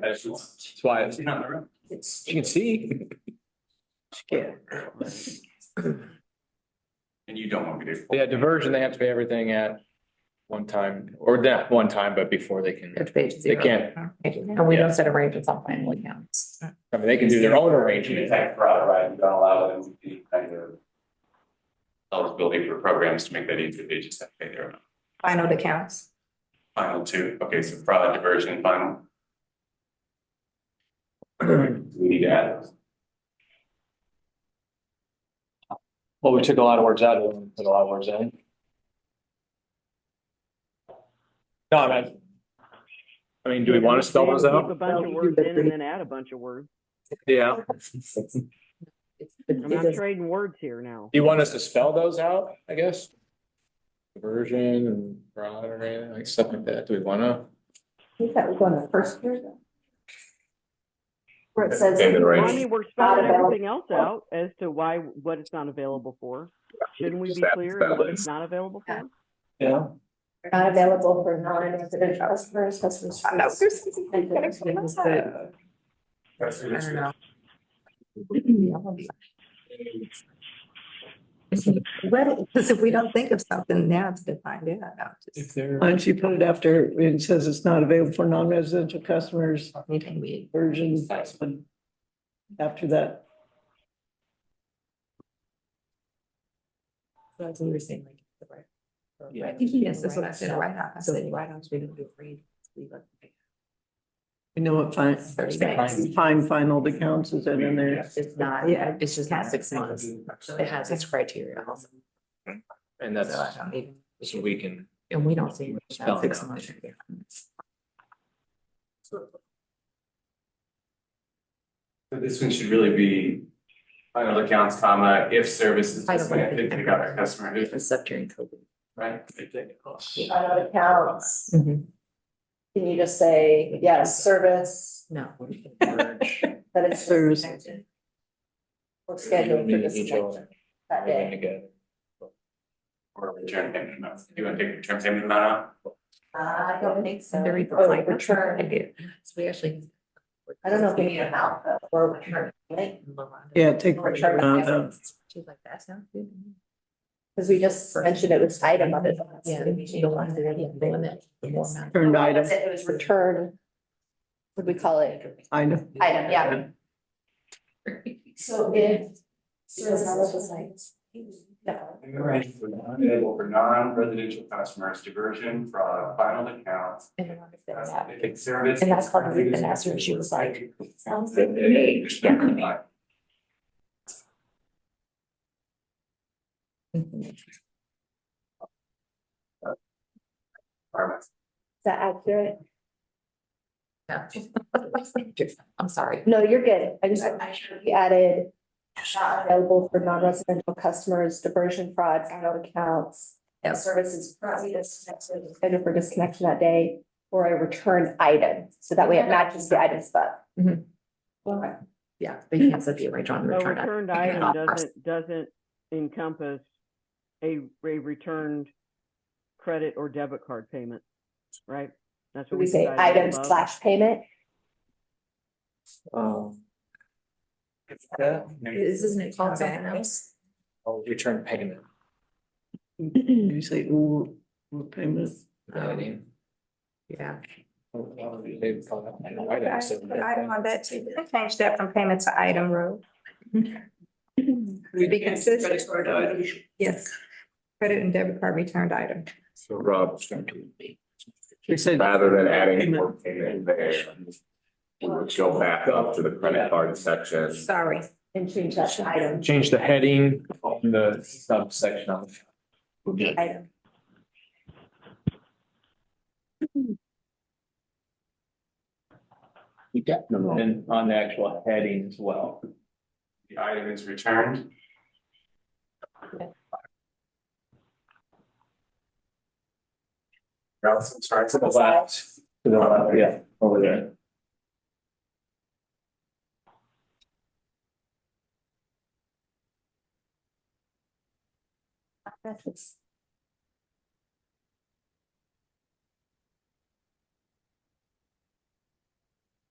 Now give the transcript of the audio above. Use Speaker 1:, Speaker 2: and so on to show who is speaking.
Speaker 1: That's just-
Speaker 2: That's why
Speaker 1: She's Uh, not in the room.
Speaker 2: you can see.
Speaker 1: And you don't want me to.
Speaker 2: Yeah, diversion, they have to pay everything at one time, or not one time, but before they can,
Speaker 3: If they
Speaker 2: they
Speaker 3: zero.
Speaker 2: can't,
Speaker 3: And we don't set arrangements on final accounts.
Speaker 2: I mean, they can do their own
Speaker 1: It's
Speaker 2: arrangement.
Speaker 1: like fraud, right? You don't allow them to be kind of. Eligibility for programs to make that easier. They just have to pay their own.
Speaker 3: Final accounts.
Speaker 1: Final two. Okay, so fraud, diversion, final. We need to add those.
Speaker 2: Well, we took a lot of words out of them, put a lot of words in. No, I mean. I mean, do we want to spell those
Speaker 4: Keep
Speaker 2: out?
Speaker 4: A bunch of words in and then add a bunch of words.
Speaker 2: Yeah.
Speaker 4: I'm not trading words here now.
Speaker 2: Do you want us to spell those out, I guess? Diversion and fraud or anything, like stuff like that, do we wanna?
Speaker 5: think that was on the first year though. Where it says.
Speaker 1: In the
Speaker 4: Well, I
Speaker 1: range.
Speaker 4: mean, we're spelling
Speaker 5: available.
Speaker 4: everything else out as to why, what it's not available for. Shouldn't we
Speaker 1: Just
Speaker 4: be
Speaker 1: add
Speaker 4: clear
Speaker 1: that
Speaker 4: in what
Speaker 1: list.
Speaker 4: it's not available for?
Speaker 2: Yeah.
Speaker 5: Not available for non-resident customers, customers.
Speaker 3: I know, there's something
Speaker 5: And
Speaker 3: gotta
Speaker 5: then
Speaker 3: come
Speaker 5: it was
Speaker 3: out.
Speaker 5: the-
Speaker 1: That's
Speaker 3: I
Speaker 1: what it's-
Speaker 3: don't know. Because if we don't think of something now, it's defined in. I don't just-
Speaker 2: If they're.
Speaker 6: Why don't you put it after, it says it's not available for non-residential customers,
Speaker 3: Anything we.
Speaker 6: version, after that.
Speaker 3: That's what we were saying, like. the right- the
Speaker 2: Yeah.
Speaker 3: right-
Speaker 5: Yes,
Speaker 3: Yes, that's what I said, right off. I
Speaker 5: So-
Speaker 3: said, right off, we don't do free. leave it.
Speaker 6: You know what, fine,
Speaker 3: Thirty-six.
Speaker 6: fine, final accounts is in there.
Speaker 3: It's not, yeah, it's just not six months. It has its criteria also.
Speaker 2: And
Speaker 3: So
Speaker 2: that's,
Speaker 3: I don't even-
Speaker 2: so we can,
Speaker 3: And we don't see. it
Speaker 2: Spell
Speaker 3: about
Speaker 2: it
Speaker 3: six
Speaker 2: out.
Speaker 3: months.
Speaker 1: So this one should really be final accounts, comma, if services
Speaker 3: I don't
Speaker 1: dismantled,
Speaker 3: think-
Speaker 1: they got our customer,
Speaker 3: It's up during COVID.
Speaker 1: right?
Speaker 5: Out of accounts,
Speaker 3: Mhm.
Speaker 5: Mm-hmm. can you just say, yes, service,
Speaker 3: No.
Speaker 5: but it's.
Speaker 6: Service.
Speaker 5: disconnected? Or scheduled for disconnection that day.
Speaker 2: That's
Speaker 1: Or return payment amount. You want to take return payment amount out?
Speaker 5: Uh, I don't think so.
Speaker 3: Very good,
Speaker 5: Or
Speaker 3: like, that's what I
Speaker 5: Oh, return,
Speaker 3: did. So we actually.
Speaker 5: I don't know if we need an out though, or return, right?
Speaker 6: Yeah, take.
Speaker 5: Or return.
Speaker 6: out of-
Speaker 3: She's like, that sounds good.
Speaker 5: Because we just mentioned it was item of it.
Speaker 3: Yeah. You don't want to do anything. Limit the more amount.
Speaker 6: Turned item,
Speaker 5: That's it, It was return. What do we call it?
Speaker 6: item.
Speaker 5: Item, yeah. So if. Service. No.
Speaker 1: Right. Available for non-residential customers, diversion, fraud, final accounts.
Speaker 3: And I wonder if that's
Speaker 1: uh,
Speaker 3: happening.
Speaker 1: they take service.
Speaker 3: And that's part of the answer. She was like, sounds
Speaker 1: That-
Speaker 3: good to me.
Speaker 1: that-
Speaker 3: Yeah.
Speaker 1: that-
Speaker 3: Mhm.
Speaker 1: requirements.
Speaker 5: Is that accurate?
Speaker 3: Yeah. I'm sorry.
Speaker 5: No, you're good. I just, we added not available for non-residential customers, diversion fraud, out accounts.
Speaker 3: Yeah.
Speaker 5: Services currently disconnected, scheduled for disconnection that day, or a return item, so that way it matches the item spot.
Speaker 3: Yeah, but you can't set the arrange on
Speaker 4: So
Speaker 3: return.
Speaker 4: returned
Speaker 3: I-
Speaker 4: item
Speaker 3: I'll press-
Speaker 4: doesn't, doesn't encompass a, a returned credit or debit card payment, right? That's what
Speaker 5: We say
Speaker 4: decided
Speaker 5: item
Speaker 4: above.
Speaker 5: slash payment.
Speaker 2: Um. Yeah,
Speaker 3: Is- Isn't it called something else?
Speaker 2: oh, return payment,
Speaker 6: You say, ooh, ooh, payment.
Speaker 2: you know what I mean?
Speaker 3: Yeah.
Speaker 2: They call that an item, so-
Speaker 7: on that too. Change that from payment to item row. Be consistent. Yes. Credit and debit card returned item.
Speaker 1: So Rob,
Speaker 6: You said.
Speaker 8: Rather than adding
Speaker 6: Payment.
Speaker 8: more payment there, we would go back up to the credit card section.
Speaker 7: Sorry.
Speaker 5: And change that to item.
Speaker 2: Change the heading on the subsection of.
Speaker 5: Item.
Speaker 2: And on the actual heading as well.
Speaker 1: the item is returned. Rouse, I'm sorry,
Speaker 2: To the left. To the left, yeah, over there.
Speaker 5: That's